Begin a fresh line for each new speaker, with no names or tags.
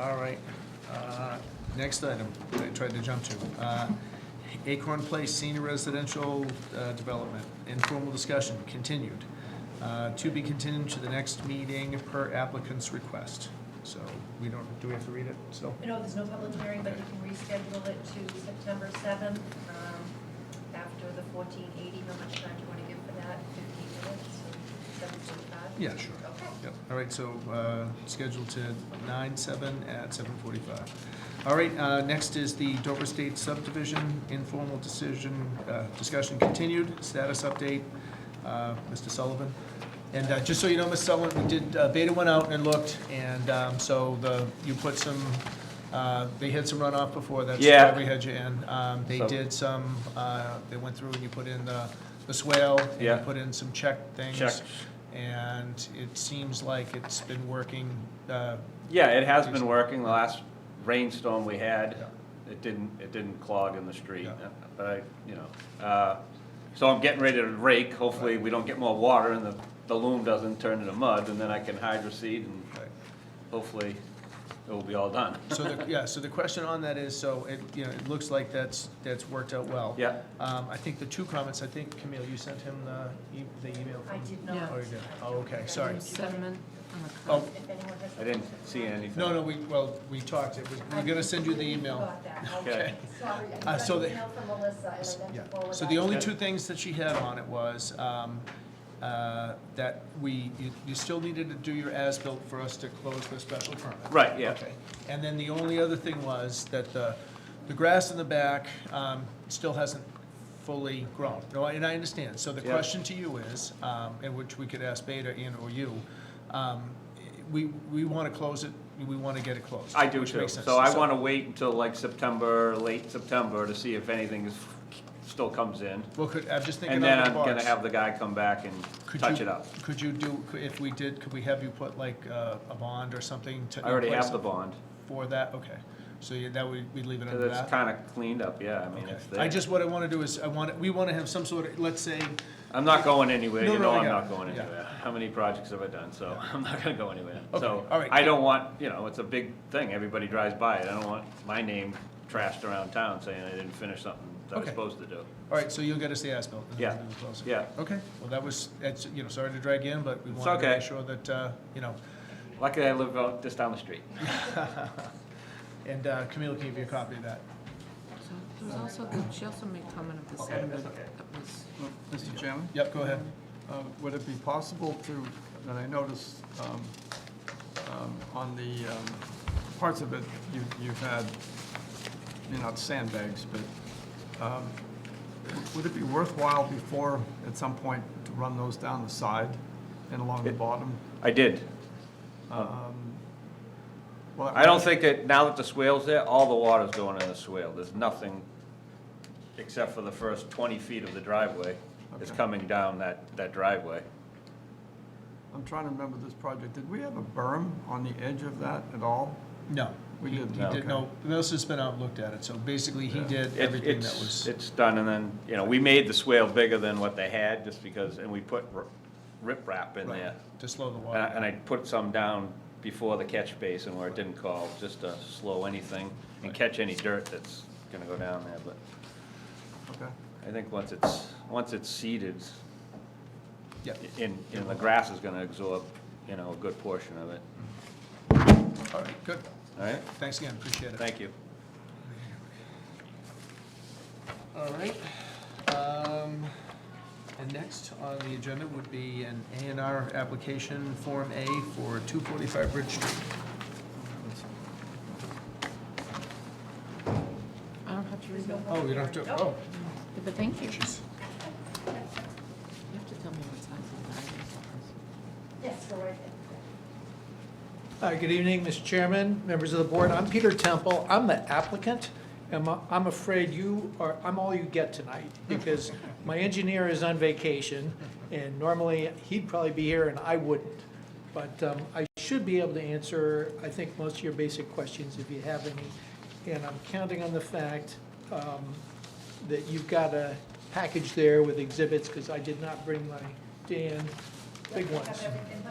All right. Uh, Next item, I tried to jump to. Uh, Acorn Place Senior Residential uh, Development, informal discussion, continued. Uh, To be continued to the next meeting per applicant's request. So we don't, do we have to read it still?
No, there's no public hearing, but you can reschedule it to September 7th um, after the 1480. How much time do you want to give for that? 15 minutes, or 7:45?
Yeah, sure.
Okay.
Yep. All right, so uh, scheduled to nine, seven at seven forty-five. All right, uh, next is the Dover State subdivision, informal decision, uh, discussion continued, status update, uh, Mr. Sullivan. And uh, just so you know, Ms. Sullivan, we did, uh, Beta went out and looked, and um, so the, you put some, uh, they had some runoff before, that's why
Yeah.
we had you in. Um, They
So-
did some, uh, they went through and you put in the the swale, and you
Yeah.
put in some check things.
Checks.
And it seems like it's been working, uh,
Yeah, it has been
Decent.
working. The last rainstorm we had,
Yeah.
it didn't, it didn't clog in the street,
Yeah.
but I, you know. uh, So I'm getting ready to rake. Hopefully, we don't get more water and the, the loom doesn't turn into mud, and then I can hydro seed and
right.
hopefully it will be all done.
so the, yeah, so the question on that is, so it, you know, it looks like that's, that's worked out well.
Yeah.
Um, I think the two comments, I think Camille, you sent him the, e- the email
I
from?
did not.
Oh, you did, oh, okay, sorry.
Sediment on the
Oh,
coast.
If anyone has-
I didn't see anything.
no, no, we, well, we talked, it was, we're gonna send you the email.
Got that, okay.
Okay.
Sorry, I
Uh,
got
so
an
the-
email from Melissa, and I meant
Yeah,
to forward
so
that.
the only
Okay.
two things that she had on it was um, uh, that we, you- you still needed to do your as-built for us to close the special permit.
Right, yeah.
Okay. And then the only other thing was that the, the grass in the back um, still hasn't fully grown. No, and I understand. So the
Yeah.
question to you is, um, and which we could ask Beta and/or you, um, we, we want to close it, we want to get it closed.
I do
which
too.
makes sense.
So I want to wait until like September, late September, to see if anything is, still comes in.
Well, could, I'm just thinking
And
out
then
of the
I'm
box.
gonna have the guy come back and
Could
touch
you-
it up.
Could you do, if we did, could we have you put like uh, a bond or something to?
I already
in place
have the bond.
For that, okay. So you- that would, we'd leave it
Because
under
it's
that?
kind of cleaned up, yeah, I mean,
Okay.
it's there.
I just, what I want to do is, I want, we want to have some sort of, let's say,
I'm not going anywhere,
No,
you
no,
know
I
I'm
got
not
it.
going
Yeah.
anywhere. How many projects have I done, so I'm not gonna go anywhere.
Okay,
So,
all right.
I don't want, you know, it's a big thing, everybody drives by it, I don't want my name trashed around town saying I didn't finish something that I was
Okay.
supposed to do.
all right, so you'll get us the as-built. and then
Yeah,
we'll do the closing.
yeah.
Okay, well, that was, that's, you know, sorry to drag you in, but we
It's
wanted to
okay.
make sure that, uh, you know,
Luckily, I live out just down the street.
and uh, Camille can give you a copy of that.
So There was also, the- she also made comment of the
Okay, that's
sediment
okay.
that was,
Mr. Chairman,
Yep, go ahead.
uh, would it be possible to, that I noticed um, um, on the um, parts of it, you- you've had, you're not sandbags, but um, would it be worthwhile before, at some point, to run those down the side and along the bottom?
I did.
Well,
I don't think that, now that the swale's there, all the water's going in the swale, there's nothing, except for the first twenty feet of the driveway, is
Okay.
coming down that, that driveway.
I'm trying to remember this project. Did we have a berm on the edge of that at all?
No.
We
He-
didn't,
He did,
okay.
no, Melissa's been out and looked at it, so basically he
Yeah.
did
It-
everything that
it's-
was.
It's done, and then, you know, we made the swale bigger than what they had, just because, and we put r- riprap in
right,
there.
To slow the
And I-
water.
and I put some down before the catch basin where it didn't call, just to slow anything and catch any dirt that's gonna go down there, but
Okay.
I think once it's, once it's seeded,
Yeah.
in, in the grass is gonna absorb, you know, a good portion of it,
All right, good.
all right?
Thanks again, appreciate it.
Thank you.
All right. Um, And next on the agenda would be an A and R application, Form A, for 245 Bridge Street.
I don't have to read
There's no
that.
Oh, you don't have to, oh,
But thank you. You
jeez.
have to tell me what size the
Yes, we're right
Hi, good evening, Mr. Chairman, members of the board. I'm Peter Temple. I'm the applicant. And I'm- I'm afraid you are, I'm all you get tonight because my engineer is on vacation and normally he'd probably be here and I wouldn't. But um, I should be able to answer, I think, most of your basic questions if you have any. And I'm counting on the fact um, that you've got a package there with exhibits because I did not bring my Dan
there.
big ones.
Have everything